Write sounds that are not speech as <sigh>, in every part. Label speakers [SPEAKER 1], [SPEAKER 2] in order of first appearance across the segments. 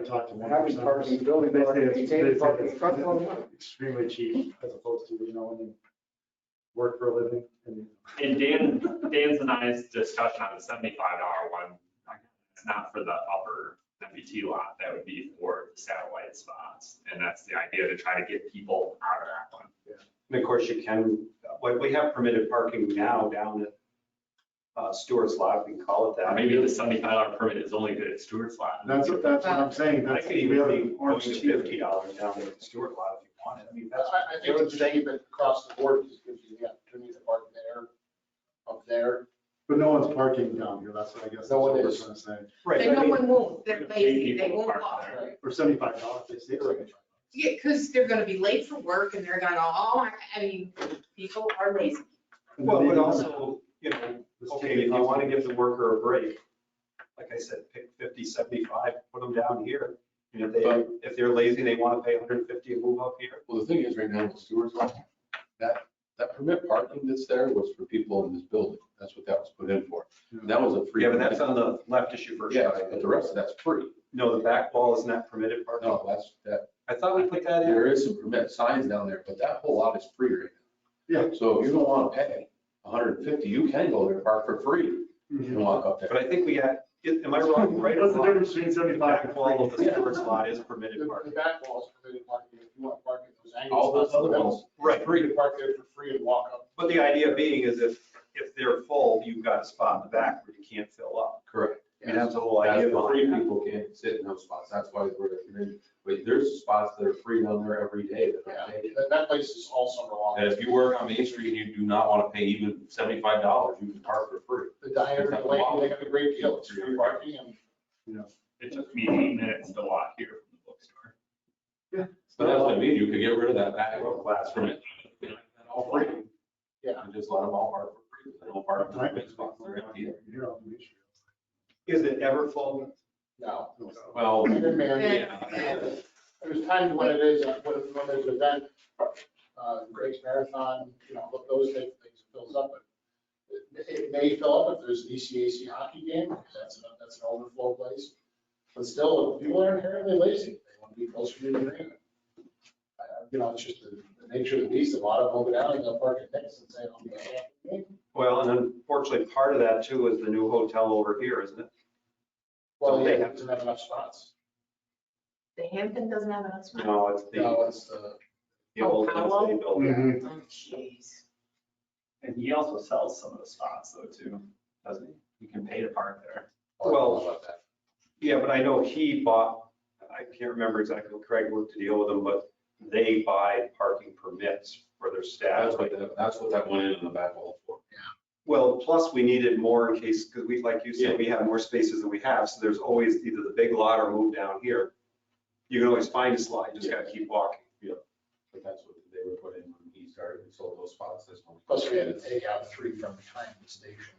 [SPEAKER 1] I talked to one
[SPEAKER 2] Having
[SPEAKER 1] person.
[SPEAKER 2] parking,
[SPEAKER 1] They
[SPEAKER 2] building,
[SPEAKER 1] said
[SPEAKER 2] parking,
[SPEAKER 1] it's-
[SPEAKER 2] maintaining
[SPEAKER 1] they said
[SPEAKER 2] parking, front lawn,
[SPEAKER 1] it's extremely cheap as opposed to, you know, when you work for a living and.
[SPEAKER 3] And Dan, Dan's and I's discussion on the seventy-five dollar one, it's not for the upper MBT lot, that would be for the satellite spots. And that's the idea to try to get people out of that one.
[SPEAKER 4] And of course, you can, what we have permitted parking now down at uh, Stewart's Lot, we can call it
[SPEAKER 3] Or
[SPEAKER 4] that.
[SPEAKER 3] Maybe the seventy-five dollar permit is only good at Stewart's lot.
[SPEAKER 1] That's, what- that's what I'm saying.
[SPEAKER 4] I
[SPEAKER 1] That's
[SPEAKER 4] could even
[SPEAKER 1] really
[SPEAKER 4] be going to fifty dollars down there at the Stewart Lot if you wanted. I mean, that's.
[SPEAKER 5] I, I think
[SPEAKER 4] They're
[SPEAKER 5] it's just keep it across the board, just gives you the opportunity to park there, up there.
[SPEAKER 1] But no one's parking down here. That's what I guess. that's
[SPEAKER 5] No one
[SPEAKER 1] what we're
[SPEAKER 5] is.
[SPEAKER 1] trying to say.
[SPEAKER 4] Right,
[SPEAKER 6] Then
[SPEAKER 4] I
[SPEAKER 6] no
[SPEAKER 4] mean,
[SPEAKER 6] one won't, they're
[SPEAKER 3] We're gonna
[SPEAKER 6] lazy,
[SPEAKER 3] pay
[SPEAKER 6] they
[SPEAKER 3] people
[SPEAKER 6] won't
[SPEAKER 3] to park
[SPEAKER 6] walk.
[SPEAKER 3] there.
[SPEAKER 1] For seventy-five dollars, they say.
[SPEAKER 6] Yeah, because they're gonna be late for work and they're gonna, oh, I- I mean, people are lazy.
[SPEAKER 4] Well, but also, you know,
[SPEAKER 1] Let's
[SPEAKER 4] okay,
[SPEAKER 1] take it
[SPEAKER 4] if you
[SPEAKER 1] off.
[SPEAKER 4] want to give the worker a break, like I said, pick 50, 75, put them down here. And if they, if they're lazy, they want to pay 150 and move up here.
[SPEAKER 7] Well, the thing is, right now, the sewers, that, that permit parking that's there was for people in this building. That's what that was put in for. That was a free.
[SPEAKER 4] Yeah, but that's on the left issue first.
[SPEAKER 7] Yeah, but the rest of that's free.
[SPEAKER 4] No, the back wall is not permitted parking.
[SPEAKER 7] No, that's, that,
[SPEAKER 4] I thought we put that in.
[SPEAKER 7] there is some permit signs down there, but that whole lot is free right now.
[SPEAKER 1] Yeah.
[SPEAKER 7] So if you don't want to pay hundred and fifty, you can go there, park for free and
[SPEAKER 1] Mhm.
[SPEAKER 7] walk up there.
[SPEAKER 4] But I think we had, am
[SPEAKER 1] <laughs>
[SPEAKER 4] I wrong? Right or
[SPEAKER 1] What's the
[SPEAKER 4] wrong?
[SPEAKER 1] difference between
[SPEAKER 4] The
[SPEAKER 1] seventy-five
[SPEAKER 4] back
[SPEAKER 1] and
[SPEAKER 4] wall of
[SPEAKER 1] forty?
[SPEAKER 4] the storage lot is
[SPEAKER 5] The,
[SPEAKER 4] permitted
[SPEAKER 5] the
[SPEAKER 4] parking.
[SPEAKER 5] back walls, permitted parking, if you want to park at those angles.
[SPEAKER 7] All those other ones,
[SPEAKER 4] Right.
[SPEAKER 5] Free to park there for free and walk up.
[SPEAKER 4] But the idea being is if, if they're full, you've got a spot in the back where you can't fill up.
[SPEAKER 7] correct.
[SPEAKER 4] I mean, that's the whole
[SPEAKER 7] That's
[SPEAKER 4] idea
[SPEAKER 7] the free
[SPEAKER 4] behind it.
[SPEAKER 7] people can't sit in those spots. That's why we're, recommending- but there's spots that are free down there every day that
[SPEAKER 5] Yeah,
[SPEAKER 7] are paid.
[SPEAKER 5] that, that place is all summer
[SPEAKER 7] And
[SPEAKER 5] long.
[SPEAKER 7] if you work on Main Street and you do not want to pay even seventy-five dollars, you can park for free.
[SPEAKER 5] The diameter of the lane, they have a great deal, it's free parking and
[SPEAKER 3] It took me eight minutes to walk here from the bookstore.
[SPEAKER 7] But that's what I mean, you could get rid of that back row class from it. All free.
[SPEAKER 5] Yeah.
[SPEAKER 7] And just let them all park for free, they don't park in the big spots, they're empty.
[SPEAKER 1] You're on the issue.
[SPEAKER 4] Is it ever full?
[SPEAKER 5] no.
[SPEAKER 7] Well,
[SPEAKER 5] Even man,
[SPEAKER 7] yeah.
[SPEAKER 5] There's times when it is, uh, when, when there's an event, uh, Greg's Marathon, you know, look, those type of things fills up. but It it may fill up if there's an E ECAC hockey game, because that's, an- that's an overflow place. But still, people are inherently lazy. They want to be closer to the arena. Uh, You know, it's just the the nature of the beast. A lot of them will go down and they'll park at Nick's and say, I'll be at
[SPEAKER 4] Well, and unfortunately, part of that too is the new hotel over here, isn't it?
[SPEAKER 5] Well, yeah, it doesn't have enough spots.
[SPEAKER 6] The Hampton doesn't have enough spots.
[SPEAKER 4] No, it's the,
[SPEAKER 5] No, it's, uh,
[SPEAKER 4] the old Wednesday building.
[SPEAKER 1] Mhm.
[SPEAKER 6] Oh, jeez.
[SPEAKER 3] And he also sells some of the spots though too, doesn't he? You can pay to park there.
[SPEAKER 4] Well-
[SPEAKER 5] about that.
[SPEAKER 4] Yeah, but I know he bought, I can't remember exactly, Craig worked to deal with them, but they buy parking permits for their staff.
[SPEAKER 7] that's what, that- that's what that went in in the back wall for.
[SPEAKER 4] Well, plus we needed more in case, because we, like you said, we have more spaces than we have, so there's always either the big lot or move down here. You can always find a slot, you just gotta keep walking.
[SPEAKER 7] But that's what they were put in when he started, he sold those spots this one.
[SPEAKER 5] Plus, we had to take out three from behind the station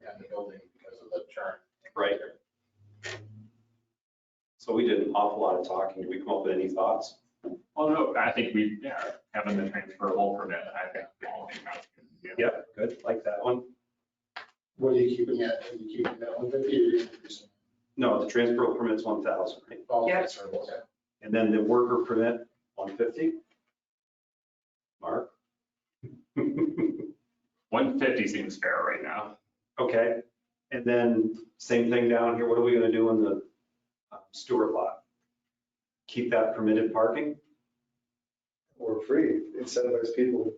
[SPEAKER 5] and the building because of the turn.
[SPEAKER 4] Right. So we did an awful lot of talking. Did we come up with any thoughts?
[SPEAKER 3] Well, no, I think we, yeah, having the transferable permit, I think. we all think that's good. Yeah.
[SPEAKER 4] Yep, good, like that one.
[SPEAKER 5] What are you keeping at? Are you keeping that one fifty or are you increasing?
[SPEAKER 4] No, the transfer permit's one thousand, right?
[SPEAKER 5] Well,
[SPEAKER 6] Yeah.
[SPEAKER 5] that's our goal.
[SPEAKER 4] And then the worker permit, one fifty? Mark? <laughs>
[SPEAKER 3] One fifty seems fair right now.
[SPEAKER 4] Okay, and then same thing down here, what are we gonna do in the uh, Stewart lot? Keep that permitted parking?
[SPEAKER 2] Or free, incentivize people.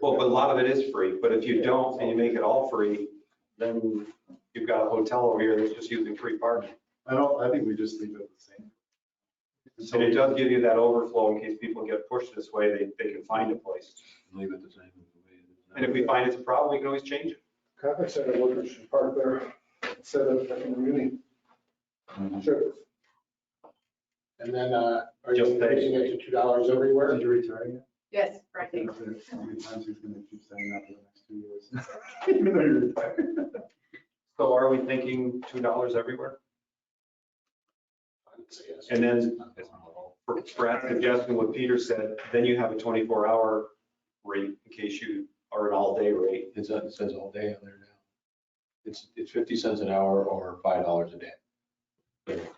[SPEAKER 4] Well, but a lot of it is free, but if you don't and you make it all free, then you've got a hotel over here that's just using free parking.
[SPEAKER 1] I don't, I think we just leave it the same.
[SPEAKER 4] And it does give you that overflow in case people get pushed this way, they, they can find a place.
[SPEAKER 7] Leave it the same. as the way it is now.
[SPEAKER 4] And if we find it's a problem, we can always change it.
[SPEAKER 2] Conference center workers should park there instead of at the meeting.
[SPEAKER 7] Mm-hmm.
[SPEAKER 2] Sure.
[SPEAKER 5] And then, uh, are you
[SPEAKER 4] Just that.
[SPEAKER 5] increasing it to two dollars everywhere?
[SPEAKER 1] Did you retire yet?
[SPEAKER 6] Yes, right.
[SPEAKER 1] I don't know How many times he's gonna keep saying that for the next two years? <laughs> Even though you're retired.
[SPEAKER 4] So are we thinking two dollars everywhere?
[SPEAKER 5] I would say yes.
[SPEAKER 4] And then Brad's suggesting what Peter said, then you have a twenty-four hour rate in case you are an all-day rate.
[SPEAKER 7] It's, it says all day on there now. It's, it's fifty cents an hour or five dollars a day.